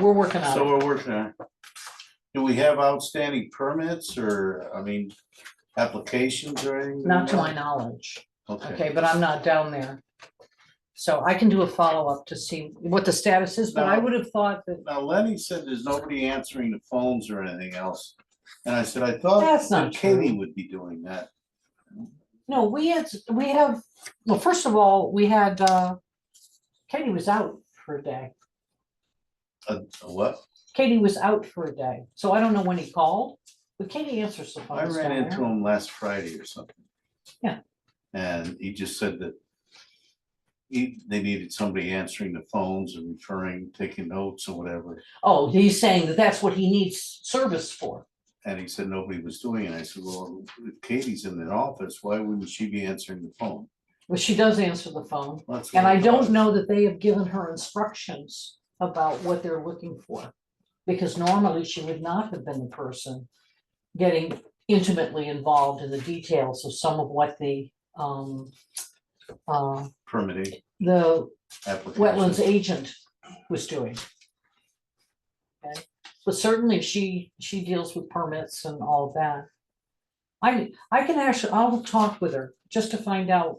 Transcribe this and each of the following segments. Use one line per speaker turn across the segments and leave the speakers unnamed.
We're working on
So
it.
we're working on. it. Do we have outstanding permits or, I mean, applications or anything?
Not to my knowledge,
Okay.
okay, but I'm not down there. So I can do a follow-up to see what the status is, but I
No.
would have thought that,
Now Lenny said there's nobody answering the phones or anything else. And I said, I thought
That's not
that Katie
true.
would be doing that.
no, we had, we have, well, first of all, we had, uh, Katie was out for a day.
Uh, What?
Katie was out for a day, so I don't know when he called, but Katie answers the phone.
I ran into him last Friday or something.
Yeah.
And he just said that he, they needed somebody answering the phones and referring, taking notes or whatever.
Oh, he's saying that that's what he needs service for.
And he said nobody was doing it. I said, well, if Katie's in the office, why wouldn't she be answering the phone?
Well, she does answer the phone,
That's what
and I
thought.
don't know that they have given her instructions about what they're looking for. Because normally she would not have been the person getting intimately involved in the details of some of what the, um, uh,
Permitting
the wetlands
application.
agent was doing. Okay, but certainly she, she deals with permits and all of that. I, I can actually, I'll talk with her just to find out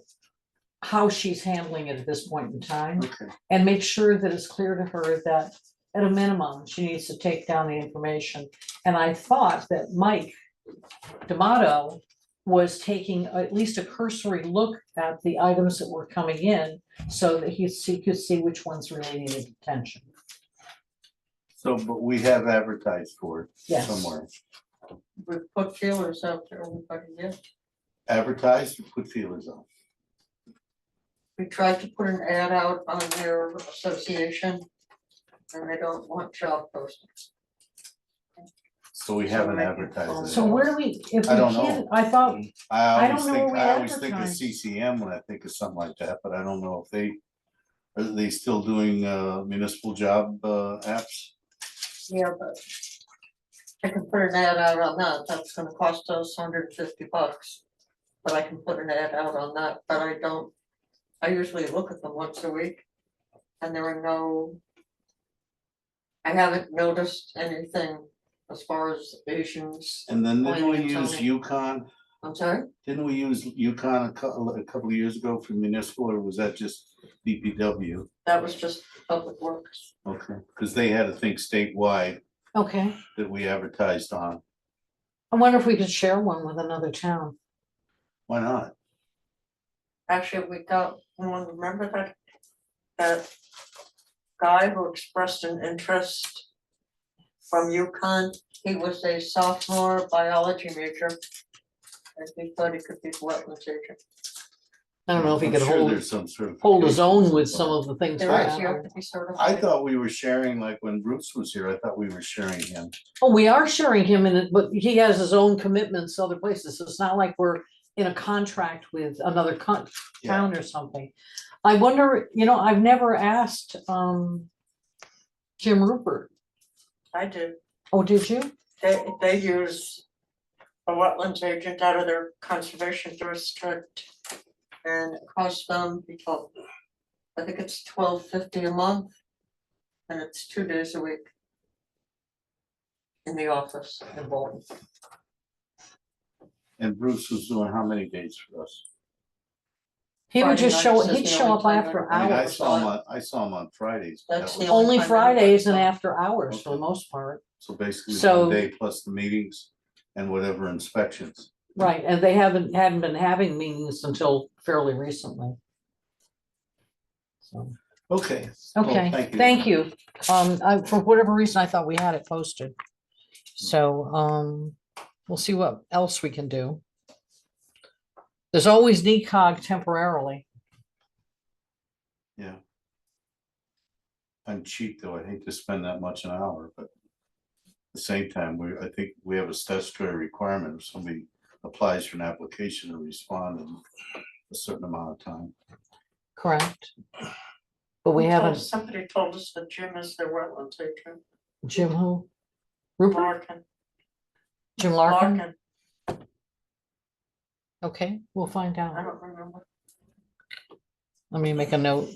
how she's handling it at this point in time
Okay,
and make sure that it's clear to her that at a minimum, she needs to take down the information. And I thought that Mike D'Amato was taking at least a cursory look at the items that were coming in so that he see- could see which ones really needed attention.
so, but we have advertised for it
Yes.
somewhere.
We've put feelers out to everybody, yeah.
Advertised, and put feelers out.
We tried to put an ad out on their association. And they don't want job postings.
So we haven't
Somewhere.
advertised it.
So where do we, if we
I don't
can't, I thought,
I
I
always
don't know
think,
where we
I always think of
advertise.
CCM when I think of something like that, but I don't know if they, are they still doing uh, municipal job uh, apps?
Yeah, but. I can put an ad out on that, that's gonna cost us hundred fifty bucks. But I can put an ad out on that, but I don't, I usually look at them once a week. And there are no. I haven't noticed anything as far as Asians,
And then didn't we
Planning and
use
zoning.
Yukon?
I'm sorry,
Didn't we use Yukon a couple, a couple of years ago for municipal, or was that just DPW?
that was just public works.
Okay, because they had a thing statewide
okay,
that we advertised on.
I wonder if we could share one with another town.
Why not?
Actually, we got, one, remember that, that guy who expressed an interest from UConn, he was a sophomore biology major. And he thought he could be wetlands agent.
I don't know if he
I'm
could
sure
hold,
There's some sort of.
hold his own with some of the things.
There
we
is, you
have.
have to
I
be certified.
thought we were sharing, like when Bruce was here, I thought we were sharing him.
Oh, we are sharing him in it, but he has his own commitments to other places, so it's not like we're in a contract with another con-
Yeah.
town or something. I wonder, you know, I've never asked, um, Jim Rupert.
I did,
Oh, did you?
they, they use a wetlands agent out of their conservation district. And it costs them, because I think it's twelve fifty a month. And it's two days a week. In the office in Bolton,
And Bruce was doing how many days for us?
He would
Friday
just
night
show,
is
he'd
the
show
only
up
time
after
I mean, I
Hours,
hours,
saw him
so-
on, I saw him on Fridays. but that
That's the
was-
only
only
time I
Fridays and
saw him.
after hours for the
Okay.
most part.
So basically
So-
one day plus the meetings and whatever inspections.
Right, and they haven't, hadn't been having meetings until fairly recently. So.
Okay. Well,
Okay,
Oh, thank you.
thank you. Um, I, for whatever reason, I thought we had it posted. So, um, we'll see what else we can do. There's always E NECOG temporarily.
I'm cheap though. I hate to spend that much an hour, but at the same time, we, I think we have a statutory requirement. If somebody applies for an application to respond in a certain amount of time.
Correct. But we
Who told-
haven't,
Somebody told us that Jim is the wetlands agent,
Jim who? Rupert,
Larkin,
Jim Larkin?
Larkin,
Okay, we'll find
I
out.
don't remember.
Let me make a note.